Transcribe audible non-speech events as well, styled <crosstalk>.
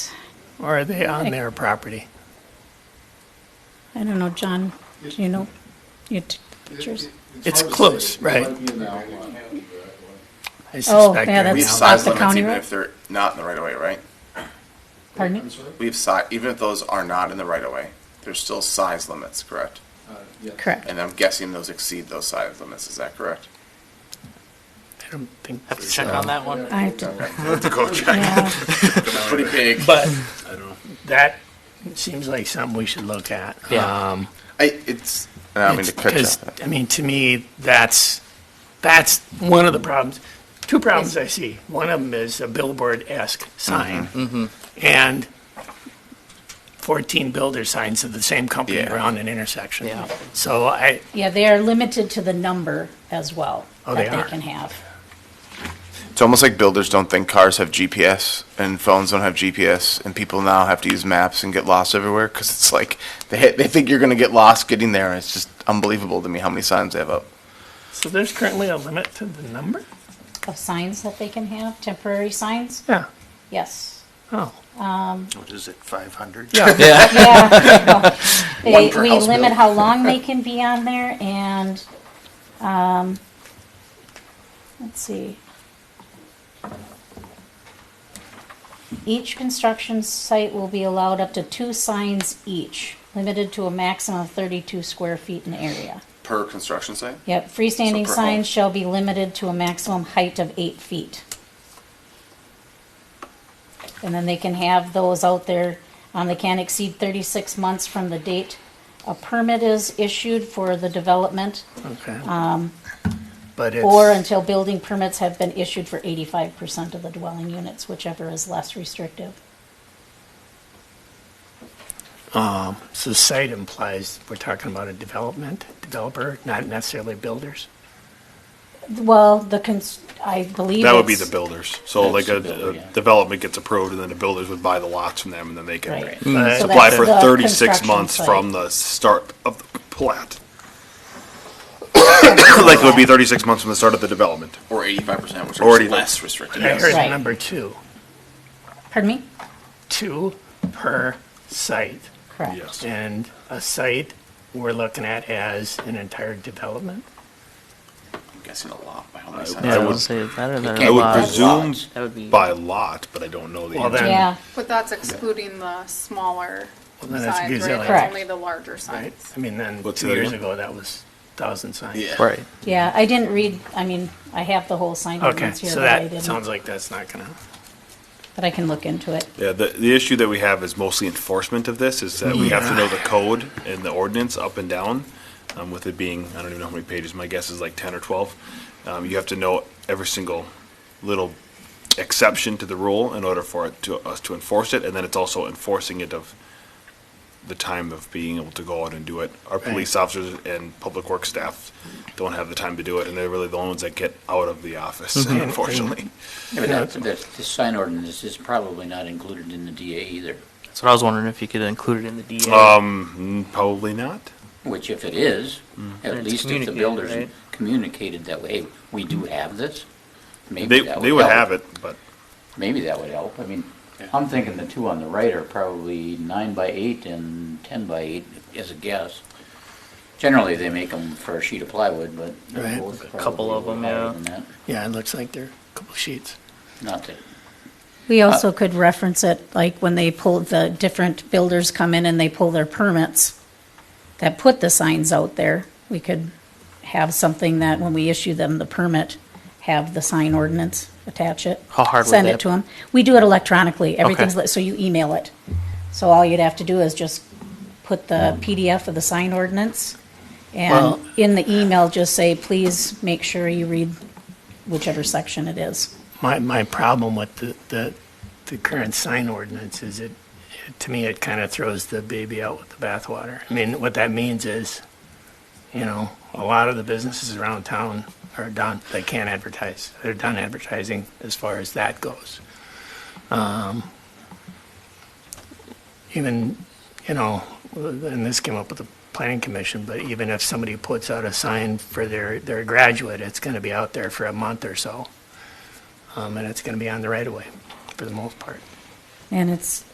or are they on their property? I don't know, John, do you know, you t- pictures? It's hard to close, say. It right? might be in the outline. I suspect Oh, yeah, they're We have That's not. not size the limits county even road? if they're not in the right of way, right? Pardon I'm me? sorry? We have si, even if those are not in the right of way, there's still size limits, correct? Uh, yeah. Correct. And I'm guessing those exceed those size limits, is that <laughs> correct? I don't think Have to so. check on that one. I have to- to go check. yeah, Pretty big. But I don't know. that seems like something we should look at. Yeah. Um, I, it's, I mean, It's to cut you because, off. I mean, to me, that's, that's one of the problems. Two problems I see. One of them is a billboard-esque Mm-hmm. sign. And 14 builder signs of the same company Yeah. around an intersection. Yeah. So I, yeah, they are limited to the number as well. Oh, they That are. they can have. It's almost like builders don't think cars have GPS and phones don't have GPS, and people now have to use maps and get lost everywhere because it's like they they think you're gonna get lost getting there. And it's just unbelievable to me how many signs they have up. so there's currently a limit to the number? Of signs that they can have, temporary signs, Yeah. yes. Oh, Um, What is it, 500? yeah. Yeah, Yeah. One They, per we house limit built. how long they can be on there and, um, let's see. Each construction site will be allowed up to two signs each, limited to a maximum of thirty-two square feet in area. Per construction site? Yep, freestanding per home. signs shall be limited to a maximum height of eight feet. And then they can have those out there, um, they can't exceed thirty-six months from the date a permit is issued for the development, Okay. Um. But it's. or until building permits have been issued for eighty-five percent of the dwelling units, whichever is less restrictive. So site implies we're talking about a development, developer, not necessarily builders. Well, the cons, I believe That would be it's- the builders. So like a, a development gets approved and then the builders would buy the lots from them and then they can Right. But- So apply that's for the thirty-six construction months site. from the start of the plat. <coughs> Like it would be thirty-six months from the start of the development. Or eighty-five percent, which Already is less restrictive. I heard Right. number two, Pardon me? two per site. Correct. Yes. And a site we're looking at as an entire development. I'm guessing a lot by how many I signs. would say better than can't a I would lot. presume That would be- by lot, but I don't know the Well, answer. then- Yeah, But that's excluding the smaller Well, then signs, that's right? gazillion. Correct. That's only the larger Right? signs. I mean, then What's two that years again? ago, that was thousand signs. Yeah. Right. yeah, I didn't read, I mean, I have the whole sign Okay, ordinance here, so but I that didn't. sounds like that's not gonna, But I can look into it. Yeah, the, the issue that we have is mostly enforcement of this, is that we have to know the code and the ordinance up and down. Um, with it being, I don't even know how many pages, my guess is like ten or twelve. Um, you have to know every single little exception to the rule in order for it to, us to enforce it, and then it's also enforcing it of the time of being able to go out and do it. Our police officers and public works staff don't have the time to do it, and they're really the only ones that get out of the office, unfortunately. Yeah, but that, that, the sign ordinance is probably not included in the DA either, That's what I was wondering if you could include it in the DA. Um, probably not. which if it is, at Mm. it's least if the communicated, builders right? communicated that way, we do have this, maybe They, that they would help. have it, but. Maybe that would help, I mean, I'm thinking the two on the right are probably nine by eight and ten by eight, as a guess. Generally, they make them for a sheet of plywood, but Right. both A couple probably of were 'em, higher yeah. than that. yeah, it looks like there are a couple sheets. Not that, We Uh, also could reference it, like when they pull, the different builders come in and they pull their permits that put the signs out there. We could have something that when we issue them the permit, have the sign ordinance, attach it. How hard would Send that- it to them. We do it electronically. Everything's, li- so you email it. So all you'd have to do is just put the PDF of the sign ordinance Well- and in the email, just say, please make sure you read whichever section it is. My, my problem with the, the, the current sign ordinance is it, it- to me, it kind of throws the baby out with the bathwater. I mean, what that means is, you know, a lot of the businesses around town are done, they can't advertise. They're done advertising as far as that goes. Um, Even, you know, and this came up with the planning commission, but even if somebody puts out a sign for their, their graduate, it's going to be out there for a month or so um, and it's going to be on the right of way for the most part. And it's,